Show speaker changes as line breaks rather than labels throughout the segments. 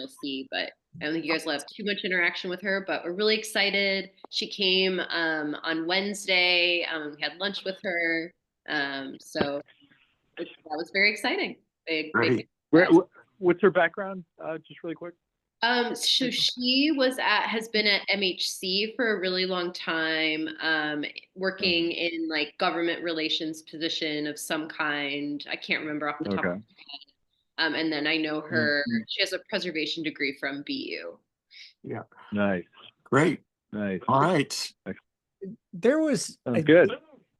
BLC, but I don't think you guys will have too much interaction with her, but we're really excited. She came um, on Wednesday, um, we had lunch with her. Um, so it, that was very exciting. Big, big.
Great. Where, wh- what's her background? Uh, just really quick.
Um, so she was at, has been at MHC for a really long time, um, working
Mm.
in like government relations position of some kind. I can't remember off the top. of
Okay. Mm-hmm.
Um, and then I know her, she has a preservation degree from BU.
Nice,
Great.
nice.
All right.
There was I
Sounds good.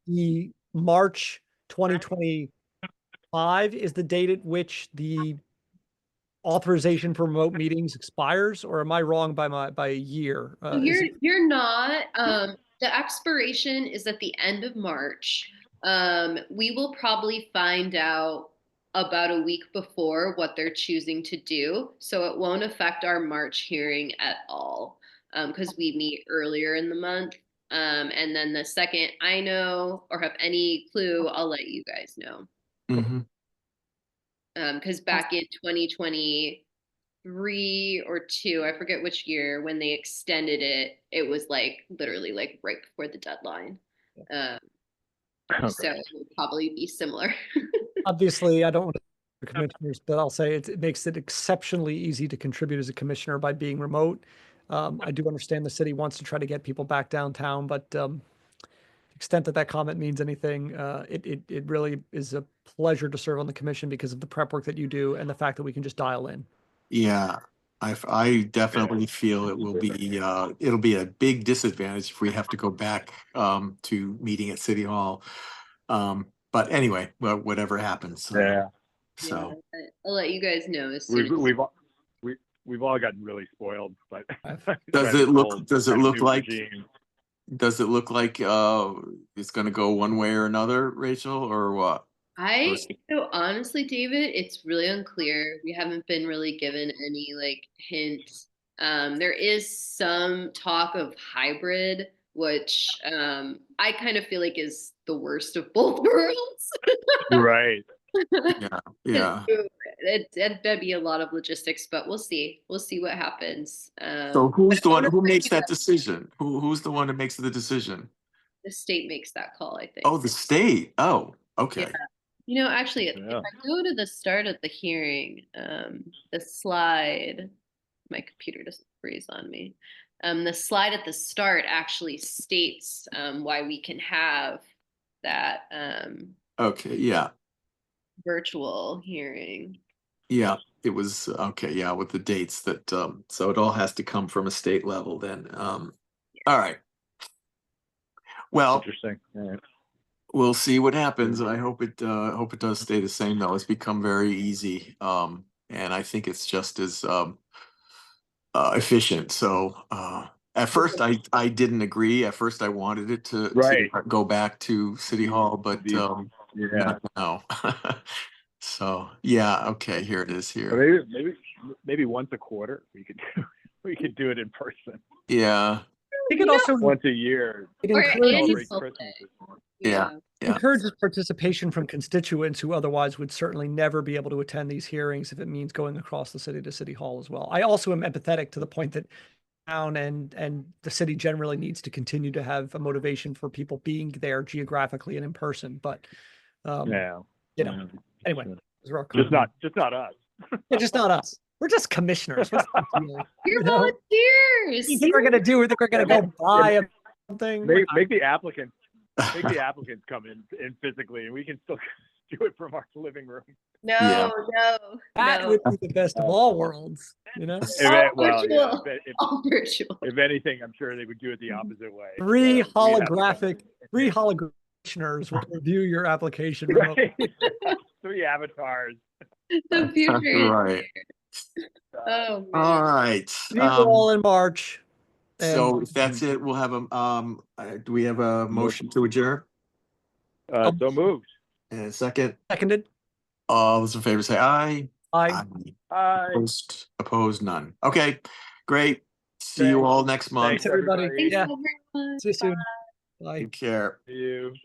the March 2025 is the date at which the authorization for remote meetings expires, or am I wrong by my, by a year? Uh,
So
is
You're,
it-
you're not, um, the expiration is at the end of March. Um, we will probably find out about a week before what they're choosing to do. So it won't affect our March hearing at all. Um, cause we meet earlier in the month. Um, and then the second I know or have any clue, I'll let you guys know.
Mhm.
Um, cause back in twenty twenty-three or two, I forget which year, when they extended it, it was like literally like right before the deadline. Um, so
Okay.
it would probably be similar.
Obviously, I don't want to commissioners, but I'll say it, it makes it exceptionally easy to contribute as a commissioner by being remote. Um, I do understand the city wants to try to get people back downtown, but, um, extent that that comment means anything, uh, it, it, it really is a pleasure to serve on the commission because of the prep work that you do and the fact that we can just dial in.
Yeah, I, f- I definitely feel it will be, uh, it'll be a big disadvantage if we have to go back, um, to meeting at City Hall. Um, but anyway, well, whatever happens. uh,
Yeah,
So,
Yeah, but I'll let you guys know as soon
we've,
as.
we've, all- we, we've all gotten really spoiled, but.
Does it look- does it look like- does it look like, uh, it's gonna go one way or another, Rachel, or what?
I, so honestly, David, it's really unclear. We haven't been really given any like hints. Um, there is some talk of hybrid, which, um, I kind of feel like is the worst of both worlds.
Right,
Yeah.
It, it, that'd be a lot of logistics, but we'll see. We'll see what happens. Um,
So who's
but
the one, who
honestly,
makes that decision? Who, who's the one that makes the decision?
The state makes that call, I think.
Oh, the state. Oh, okay.
You know, actually, if if
Yeah.
I go to the start of the hearing, um, the slide, my computer doesn't freeze on me. Um, the slide at the start actually states, um, why we can have that, um,
Okay, yeah,
virtual hearing.
yeah. It was, okay, yeah, with the dates that, um, so it all has to come from a state level then. Um, all right. Well,
interesting. Yeah.
we'll see what happens. I hope it, uh, I hope it does stay the same though. It's become very easy. Um, and I think it's just as, um, uh, efficient. So, uh, at first I, I didn't agree. At first I wanted it to to
Right.
go back to City Hall, but,
The-
um,
Yeah,
No. So, yeah, okay, here it is
Or
here.
maybe, maybe, maybe once a quarter, we could, do we could do it in person,
Yeah,
I think it also
once a year.
it
Or
encourages-
Andy's
celebrate
birthday.
Christmas or something.
Yeah. Yeah.
encourages participation from constituents who otherwise would certainly never be able to attend these hearings if it means going across the city to city hall as well. I also am empathetic to the point that town and and the city generally needs to continue to have a motivation for people being there geographically and in person. But um,
Yeah.
you know,
yeah.
anyway,
yeah.
those are our
Just
comments.
not, just not us.
Yeah, just not us. We're just commissioners. What's the deal?
You're
No.
volunteers.
You think we're gonna do? We think we're gonna go buy something?
Make, make the applicants, make the applicants come in, in physically and we can still do it from our living room.
No, no,
That
no.
would be the best of all worlds, you know.
If it- well,
virtual.
yeah, if it- if-
All virtual.
If anything, I'm sure they would do it the opposite way.
Three
Uh, we'd have to come
holographic-
in.
Three holograms will review your application. remotely.
Right? Three avatars.
The future.
right.
Uh,
Oh, man.
All right.
See you
um,
all in March. and-
So if that's it, we'll have a, um, uh, do we have a motion to adjourn?
uh, so moved.
And a second,
Seconded.
all those in favor say aye.
I
Aye.
Hi.
Opposed, opposed, none. Okay, great. See you
Thanks.
all next month.
Thanks,
everybody.
everybody.
Thanks
Yeah.
so very much.
See you soon. Bye.
Take care.
See you.